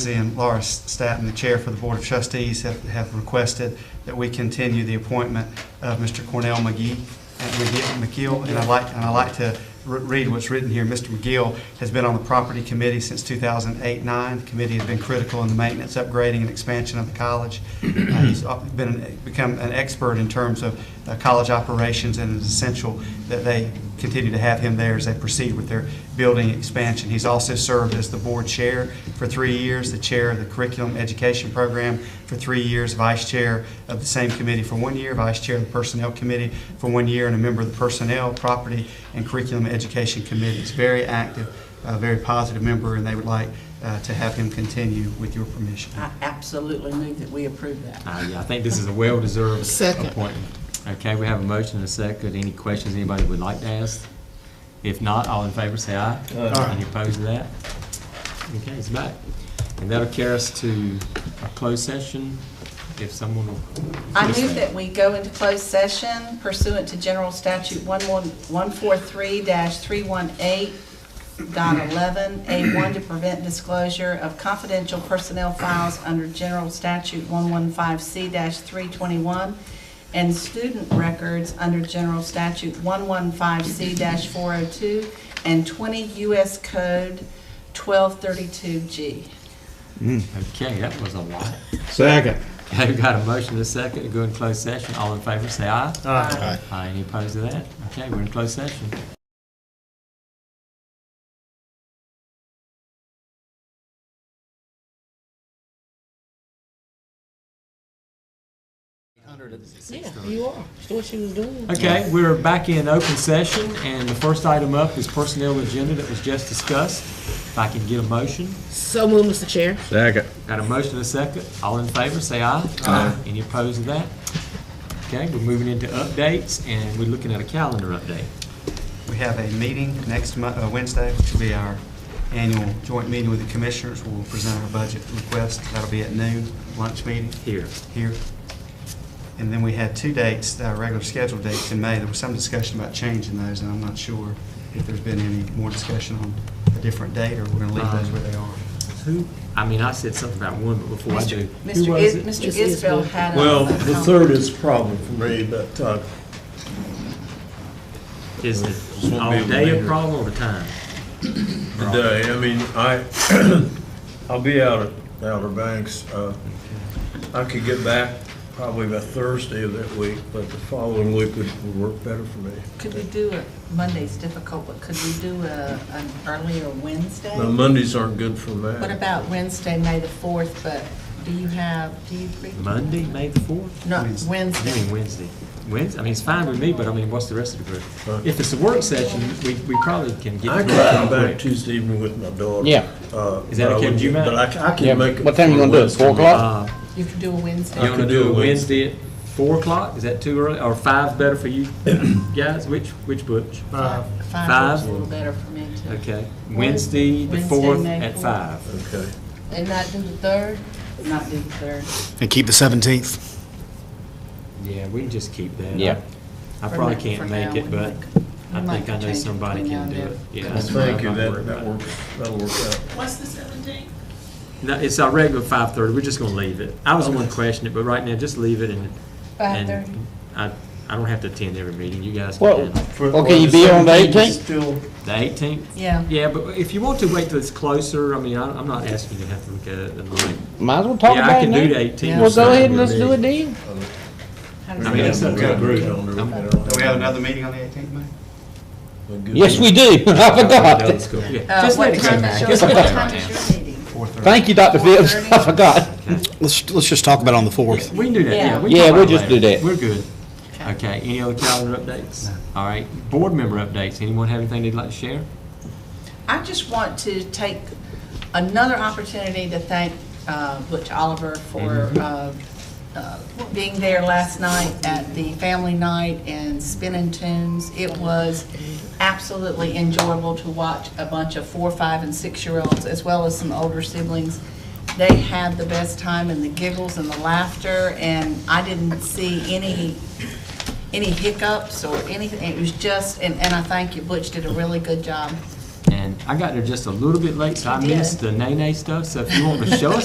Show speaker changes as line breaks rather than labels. and Laura Staton, the Chair for the Board of Trustees, have- have requested that we continue the appointment of Mr. Cornell McGee, uh, McGee- McGill, and I'd like, and I'd like to re- read what's written here. Mr. McGill has been on the Property Committee since 2008-9. The committee has been critical in the maintenance, upgrading, and expansion of the college. Uh, He's up- been, an- become an expert in terms of uh, college operations, and it's essential that they continue to have him there as they proceed with their building expansion. He's also served as the board chair for three years, the chair of the curriculum education program for three years, vice chair of the same committee for one year, vice chair of the personnel committee for one year, and a member of the personnel, property, and curriculum education committees. Very active, uh, very positive member, and they would like uh, to have him continue with your permission.
I absolutely move that we approve that.
Uh, yeah, I think this is a well-deserved
Second.
appointment. Okay, we have a motion and a second. Any questions anybody would like to ask? If not, all in favor say aye.
Aye.
Any opposed to that? Okay, it's back. And that'll carry us to a closed session if someone will.
I move that we go into closed session pursuant to General Statute 14143-318 dot 11, A1, to prevent disclosure of confidential personnel files under General Statute 115C-321 and student records under General Statute 115C-402 and 20 U.S. Code 1232G.
Okay, that was a lot.
Second.
Okay, we got a motion and a second to go in closed session. All in favor say aye.
Aye.
Aye. Any opposed to that? Okay, we're in closed session.
Yeah, you are. That's what she was doing.
Okay, we're back in open session, and the first item up is personnel agenda that was just discussed. If I can get a motion.
So moved, Mr. Chair.
Second.
Got a motion and a second. All in favor, say aye. Aye. Any opposed to that? Okay, we're moving into updates, and we're looking at a calendar update.
We have a meeting next Mo- uh, Wednesday, which will be our annual joint meeting with the commissioners. We'll present our budget request. That'll be at noon, lunch meeting.
Here.
here. And then we had two dates, uh, regular scheduled dates in May. There was some discussion about changing those, and I'm not sure if there's been any more discussion on a different date, or we're going to leave those where they are.
Who, I mean, I said something about one, but before I do. Who
Mr.
was
Is-
it?
Mr.
It's Isbell.
Isbell had a...
Well,
a
the
comment.
third is a problem for me, but, uh,
Is it all
Won't be
day a
later.
problem or the time?
today, I mean, I, I'll be out at Outer Banks, uh, I could get back probably by Thursday of that week, but the following week would, would work better for me.
Could we do a, Monday's difficult, but could we do a, an earlier Wednesday?
Now, Mondays aren't good for me.
What about Wednesday, May the 4th, but do you have, do you? pre-
Monday, May the fourth?
No,
Wednesday.
I
Wednesday.
mean, Wednesday. Wednesday, I mean, it's fine with me, but I mean, what's the rest of the
Huh?
group? If it's a work session, we, we probably can get.
I could
through it
come
real
back
quick.
Tuesday evening with my daughter.
Yeah.
Uh,
Is that
but I
okay with
would-
you, Matt?
But I, c- I
Yeah,
can make it.
what time you
for
gonna do it? Four
Wednesday.
o'clock?
Uh,
You can do a Wednesday.
You
I
want to
could
do
do
a
it
Wednesday at four o'clock? Is that too early? Or five better for you guys? Which, which butch?
Five.
Five?
Five's a little better for me, too.
Okay, Wednesday, the
Wednesday,
fourth
May
at
fourth.
five.
Okay.
And not do the 3rd? Not do the 3rd.
And keep the 17th.
Yeah, we can just keep that.
Yeah.
I
For
probably
now-
can't
for
make
now,
it,
we
but
might- we
I
might
think I know
change it
somebody
between
can do
now and
it. Yeah.
Well,
that's what I'm
thank you,
not
that,
worried
that
about.
works, that'll work out.
What's the seventeenth?
No, it's our regular five thirty. We're just gonna leave it. I was the one questioning it, but right now, just leave it and. and
5:30.
I, I don't have to attend every meeting. You guys
Well-
can.
For-
Okay,
well,
you be on the
17th is
18th?
Still
The eighteenth?
Yeah.
Yeah, but if you want to wait till it's closer, I mean, I- I'm not asking you to have to look at it in the night.
Might as well talk
Yeah, I
about it
can do
now.
the 18
Well,
or
go ahead
something.
and let's do it then.
How does
I
that-
mean, it's
Yeah,
up to the
we're
group.
on the-
I'm-
Do we have another meeting on the 18th, May?
We're good.
Yes, we do. I
That
forgot.
was cool. Yeah,
Uh,
Just let
what
it go
time
back.
is your,
Just
what
let it
time
go
is your meeting?
4:30.
Thank you, Dr. Phillips. I forgot.
back.
Let's, let's just talk about on the 4th.
Okay. We can do that, yeah. we can talk
Yeah. Yeah,
about
we'll
it
just
later.
do that.
We're good. Okay, any other calendar updates? All right, board member updates. Anyone have anything they'd like to share?
I just want to take another opportunity to thank uh, Butch Oliver for uh, uh, being there last night at the family night and spinning tunes. It was absolutely enjoyable to watch a bunch of four, five, and six-year-olds, as well as some older siblings. They had the best time and the giggles and the laughter, and I didn't see any any hiccups or anything. It was just, and, and I thank you, Butch did a really good job
And I got there just a little bit late, so I
You did.
missed the nay-nay stuff, so if you want to show us